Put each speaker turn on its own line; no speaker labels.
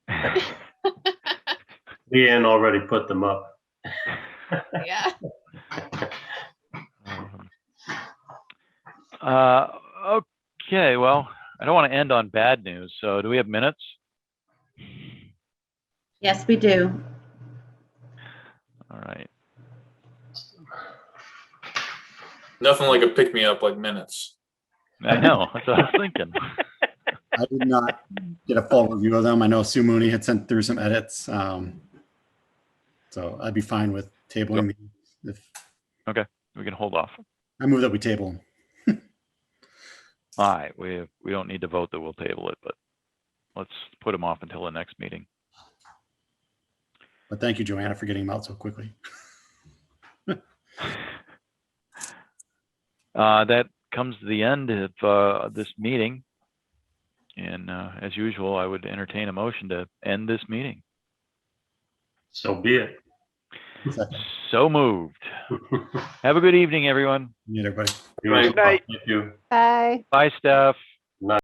Leanne already put them up.
Yeah.
Um, Uh, okay, well, I don't want to end on bad news, so do we have minutes?
Yes, we do.
All right,
Nothing like a pick me up like minutes.
I know, that's what I was thinking.
I did not get a full review of them. I know Sue Mooney had sent through some edits. um, So I'd be fine with tabling. these If,
We can hold off.
I move that we table. them.
All right, we, we don't need to vote that we'll table it, but let's put them off until the next meeting.
But thank you, Joanna, for getting them out so quickly.
Uh, that comes to the end of, uh, this meeting. And, uh, as usual, I would entertain a motion to end this meeting.
So be it.
Second.
So moved. Have a good evening, everyone.
Need everybody.
You as
Right.
well. Thank you.
Bye.
Bye, Steph.